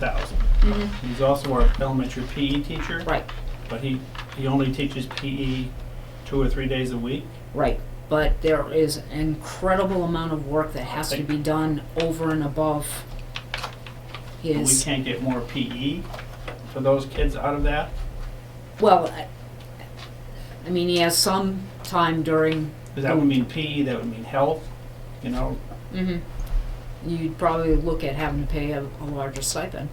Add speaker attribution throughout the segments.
Speaker 1: thousand. He's also our elementary PE teacher.
Speaker 2: Mm-hmm. Right,
Speaker 1: But he, he only teaches PE two or three days a week.
Speaker 2: right. But there is an incredible amount of work that has to be done over and above
Speaker 1: But we
Speaker 2: his,
Speaker 1: can't get more PE for those kids out of that.
Speaker 2: well, I- I mean, he has some time during,
Speaker 1: Because that would mean PE, that would mean health, you know,
Speaker 2: mhm. You'd probably look at having to pay a, a larger stipend.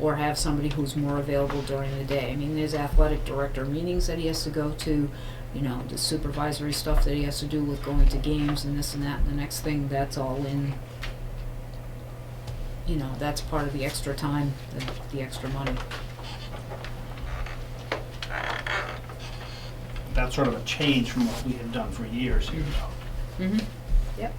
Speaker 2: Or have somebody who's more available during the day. I mean, there's athletic director meetings that he has to go to, you know, the supervisory stuff that he has to do with going to games and this and that, and the next thing, that's all in. You know, that's part of the extra time, the, the extra money.
Speaker 1: that's sort of a change from what we had done for years here now.
Speaker 2: Mm-hmm. Yep.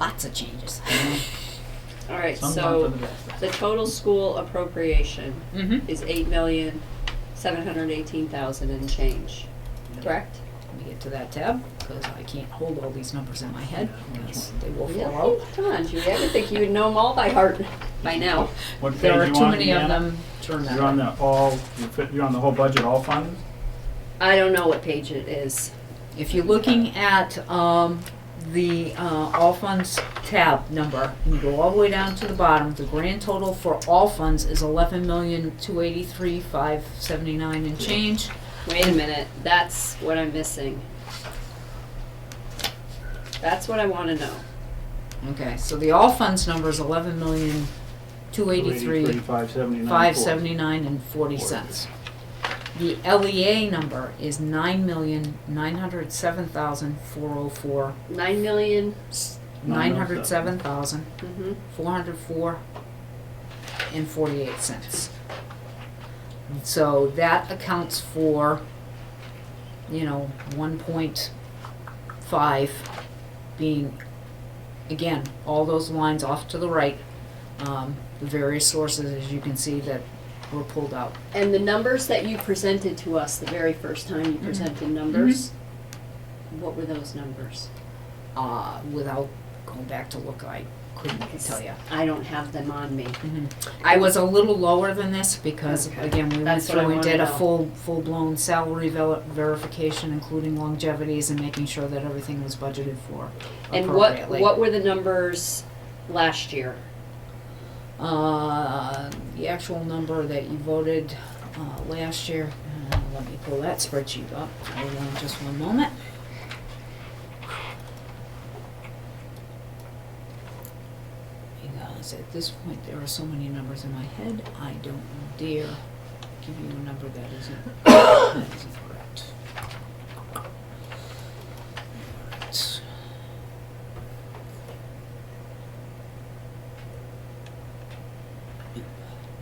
Speaker 2: Lots of changes. Mm-hmm.
Speaker 3: All right,
Speaker 1: Sometimes for
Speaker 3: so
Speaker 1: the best.
Speaker 3: the total school appropriation
Speaker 2: Mm-hmm.
Speaker 3: is eight million, seven hundred eighteen thousand and change, correct?
Speaker 2: Let me get to that tab, because I can't hold all these numbers in my head, because they will fall out.
Speaker 3: Really? Come on, Judy, I would think you would know them all by heart by now.
Speaker 1: What page
Speaker 2: There
Speaker 1: you
Speaker 2: are too
Speaker 1: on,
Speaker 2: many of
Speaker 1: Deanna?
Speaker 2: them, turn that
Speaker 1: You're on the all, you're fi- you're on the whole budget, all funds?
Speaker 3: I don't know what page it is.
Speaker 2: If you're looking at, um, the, uh, all funds tab number, and you go all the way down to the bottom, the grand total for all funds is eleven million, two eighty-three, five seventy-nine and change.
Speaker 3: Wait a minute, that's what I'm missing. That's what I wanna know.
Speaker 2: Okay, so the all funds number is eleven million, two eighty-three,
Speaker 1: Five seventy-nine.
Speaker 2: five seventy-nine and forty cents. The LEA number is nine million, nine hundred seven thousand, four oh four,
Speaker 3: Nine million,
Speaker 2: nine hundred seven thousand,
Speaker 3: mm-hmm,
Speaker 2: four hundred four and forty-eight cents. So that accounts for, you know, one point five being, again, all those lines off to the right. Um, the various sources, as you can see, that were pulled out.
Speaker 3: and the numbers that you presented to us the very first time you presented numbers, what were those numbers?
Speaker 2: Uh, without going back to look, I couldn't tell you.
Speaker 3: I don't have them on me.
Speaker 2: I was a little lower than this because,
Speaker 3: Mm-hmm. Okay.
Speaker 2: again, we went
Speaker 3: That's what I
Speaker 2: through and
Speaker 3: wanna
Speaker 2: did a
Speaker 3: know.
Speaker 2: full, full-blown salary vel- verification, including longevities and making sure that everything was budgeted for
Speaker 3: And what,
Speaker 2: appropriately.
Speaker 3: what were the numbers last year?
Speaker 2: Uh, the actual number that you voted, uh, last year, uh, let me pull that spreadsheet up, hold on just one moment. Because at this point, there are so many numbers in my head, I don't dare give you a number that isn't, that isn't correct. Alright.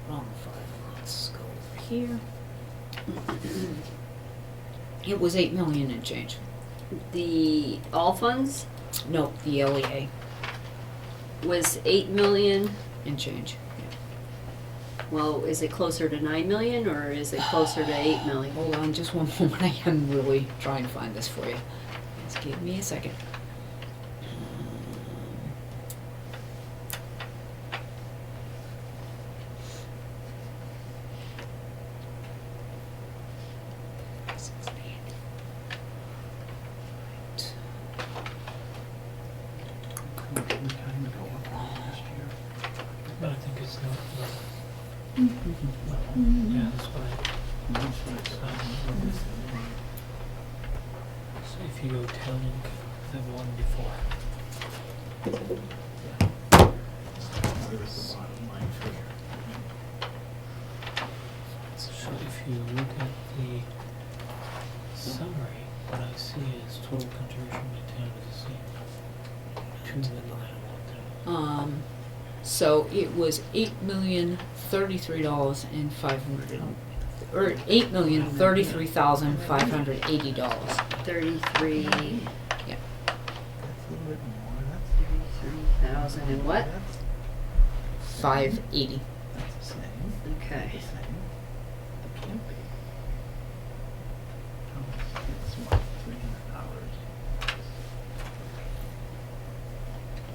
Speaker 2: Wrong file, let's go over here. It was eight million and change,
Speaker 3: The all funds
Speaker 2: no, the E LEA
Speaker 3: was eight million,
Speaker 2: and change, yeah.
Speaker 3: well, is it closer to nine million or is it closer to eight million?
Speaker 2: Hold on just one moment, I am really trying to find this for you. Just give me a second.
Speaker 4: But I think it's not. Yeah, that's why. um, So if you go down and go the one before. So if you look at the summary, what I see is total contribution by town is the same. Two million nine one thousand.
Speaker 2: Um, so it was eight million thirty-three dollars and five hundred, or eight million thirty-three thousand five hundred eighty dollars.
Speaker 3: Thirty-three, thirty-three thousand and what?
Speaker 2: Five eighty.
Speaker 3: Okay.
Speaker 5: It can't be.